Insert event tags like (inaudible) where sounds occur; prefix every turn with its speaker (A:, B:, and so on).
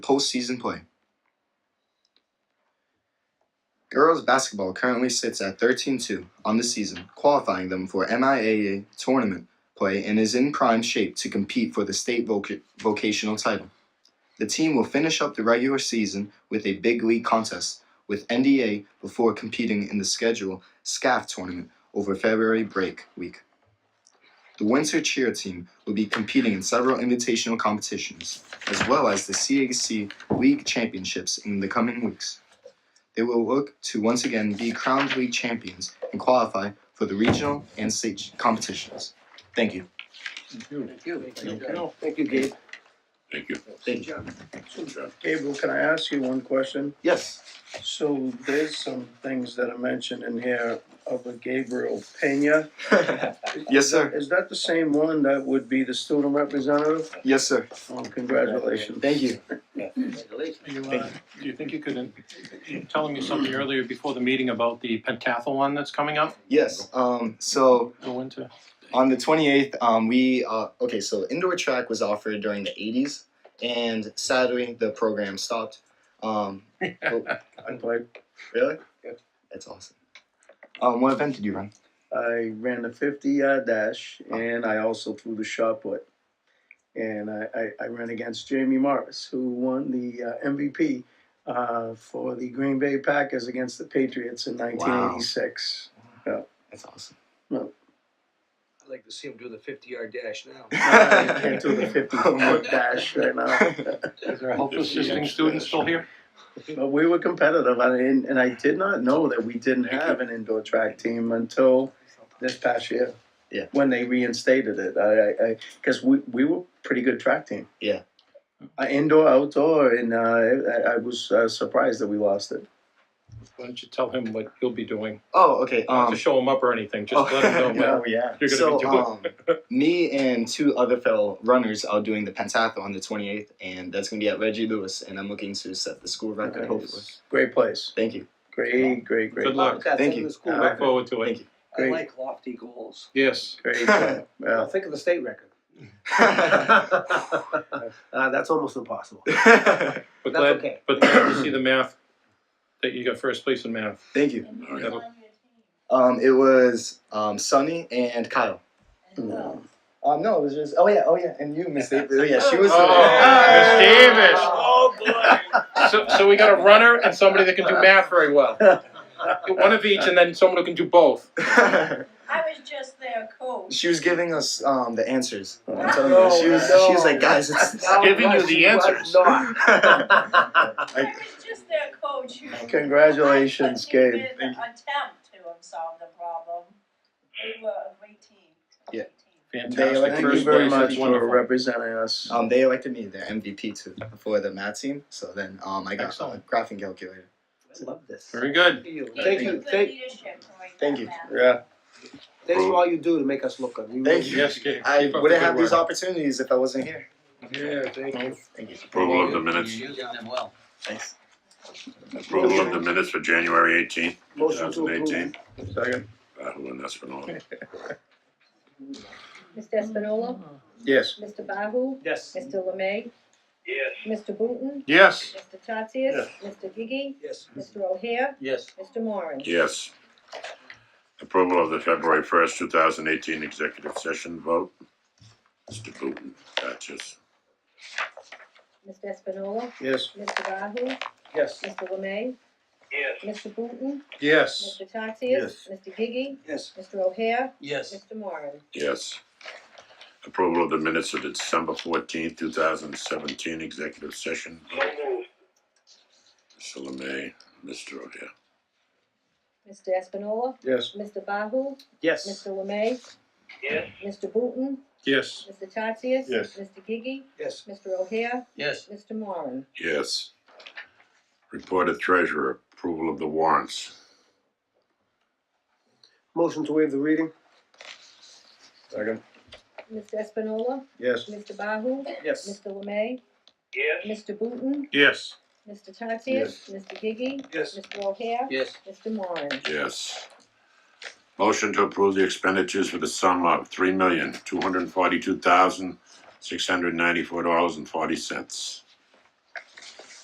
A: postseason play. Girls basketball currently sits at 13 2 on the season, qualifying them for MIAA tournament play and is in prime shape to compete for the state voc- vocational title. The team will finish up the regular season with a big league contest with NDA before competing in the scheduled SCAF tournament over February break week. The Winter Cheer team will be competing in several invitational competitions, as well as the CAC League Championships in the coming weeks. They will look to once again be crowned league champions and qualify for the regional and state competitions. Thank you.
B: Thank you.
C: Thank
B: you. Thank you, Gabe.
C: Thank you.
A: Thank you.
D: Gabriel, can I ask you one question?
A: Yes.
D: So there's some things that are mentioned in here of a Gabriel Pena.
A: yes, sir.
D: Is that the same one that would be the student representative?
A: Yes, sir.
D: Oh, congratulations.
A: Thank you.
B: Congratulations.
E: You, uh, do you think you could, you were telling me something earlier before the meeting about the pentathlon that's coming up,
A: Yes. Um, so
E: go into?
A: on the 28th um, we uh, okay so indoor track was offered during the 80s and sadly the program stopped (laughs) um,
D: I played,
A: really
D: Yeah.
A: that's awesome um, what event did you run
D: I ran the fifty yard dash and I also threw the shot put. And I, I, I ran against Jamie Morris, who won the uh, MVP uh, for the Green Bay Packers against the Patriots in nineteen eighty-six.
A: that's awesome
B: I'd like to see him do the fifty yard dash (laughs) now.
D: I
A: (laughs)
D: can't do the fifty foot dash right now.
E: Is there a health assisting student still here?
D: But we were competitive, and I, didn't- and I did not know that we didn't have an indoor track team until this past year.
A: Yeah.
D: When they reinstated it, I, I, I because we, we were pretty good track team.
A: Yeah.
D: Uh, indoor, outdoor, and uh, I, I was uh, surprised that we lost it.
E: Why don't you tell him what you'll be doing?
A: (laughs) oh okay
E: Not to
A: um,
E: show him up or anything, just
A: oh,
E: let him know
D: Yeah,
E: what
D: yeah.
E: you're gonna be
A: so um,
E: doing.
A: me and two other fellow runners are doing the pentathlon on the 28th and that's going to be at reggie lewis and i'm looking to set the school record hopefully
D: Uh, Great place.
A: thank (laughs) you
D: Great, great, great,
E: Good luck,
B: That's
A: Thank
B: in
A: you.
B: the school
D: Uh,
E: (laughs) look
B: record.
E: forward to
A: thank
E: it.
A: you
B: I
D: great.
B: like lofty goals.
E: Yes,
D: great.
E: (laughs)
D: uh,
B: Well,
D: yeah.
B: think of the state record. (laughs) Uh, that's almost impossible.
E: but
B: That's
E: glad,
B: okay.
E: but glad to see the math, that you got first place in math.
A: thank you
C: All right.
A: um, it was um, sunny and kyle Um, no, it was just. Oh yeah, oh yeah, and you, Miss Davis. (laughs) Oh yeah, she was.
E: Oh, Miss Davis.
B: Oh, boy.
E: So, so we got a runner and somebody that can do math
A: (laughs)
E: very well. One of each and then someone who can do both.
A: Davis.
F: I was just their
A: (laughs)
F: coach.
A: she was giving us um the answers. I'm
D: Uh,
A: telling
B: No,
A: you, she was.
B: no.
A: She was like, guys, it's. (laughs) it's
B: No,
E: Giving you
B: yes,
E: the
B: he was
E: answers.
B: (laughs) not.
F: I
A: I,
F: was just their coach who.
D: Congratulations,
F: I couldn't
D: Gabe.
F: even Attempt to solve the problem. We were a great team. a
A: Yeah.
F: great team.
A: They
E: Fantastic.
A: like
D: Thank you
E: First
D: very
E: place,
D: much
E: that's
D: for
E: wonderful. Uh,
D: representing us.
A: um, they elected me their MVP too for the math team. So then, um, I got a
E: Excellent.
A: graphing calculator.
B: I love this.
E: Very good.
B: Thank you,
F: Good
B: thank,
F: leadership to make
A: Thank
F: that
A: you.
F: happen.
D: Yeah.
B: thanks for all you do to make us look good. We
A: Thank
B: really-
A: you.
E: Yes, Gabe.
A: I
E: Keep up the
A: wouldn't
E: good
A: have these
E: work.
A: opportunities if I wasn't here.
B: Yeah, thank you.
A: Thank you.
C: Approval of the minutes,
B: You're using them well.
A: Thanks.
C: approval of the minutes for January eighteenth, two
B: Motion to
C: thousand eighteen.
B: approve.
D: Second.
C: Bahu and Espinola.
G: Mr. Espinola,
D: Yes.
G: Mr. Bahu,
B: Yes.
G: Mr. Lemay. Yes. Mr. Booton,
E: Yes,
G: Mr. Tatsias, Mr. Gigi,
B: Yes.
G: Mr. O'Hare,
B: Yes.
G: Mr. Moran.
C: Yes. Approval of the February first, two thousand eighteen executive session vote. Mr. Booton, Duchess.
G: Mr. Espinola,
D: Yes.
G: Mr. Bahu,
B: Yes.
G: Mr. Lemay. Yes. Mr. Booton,
E: yes.
G: Mr. Tatsias, Mr. Gigi,
B: Yes.
G: Mr. O'Hare,
B: Yes.
G: Mr. Moran.
C: Yes. Approval of the minutes of the December fourteenth, two thousand seventeen executive session vote. Mr. Lemay, Mr. O'Hare.
G: Mr. Espinola,
D: Yes.
G: Mr. Bahu,
B: Yes.
G: Mr. Lemay. Yes. Mr. Booton,
E: Yes.
G: Mr. Tatsias.
E: Yes.
G: Mr. Gigi,
B: Yes.
G: Mr. O'Hare,
B: Yes.
G: Mr. Moran.
C: Yes. Reported treasurer, approval of the warrants.
B: Motion to waive the reading?
D: Second.
G: Mr. Espinola,
D: Yes.
G: Mr. Bahu,
B: Yes.
G: Mr. Lemay. Yes. Mr. Booton,
E: Yes.
G: Mr. Tatsias, Mr. Gigi,
B: Yes.
G: Mr. O'Hare,
B: Yes.
G: Mr. Moran.
C: Yes. Motion to approve the expenditures for the sum of three million, two hundred and forty-two thousand, six hundred and ninety-four dollars and forty cents.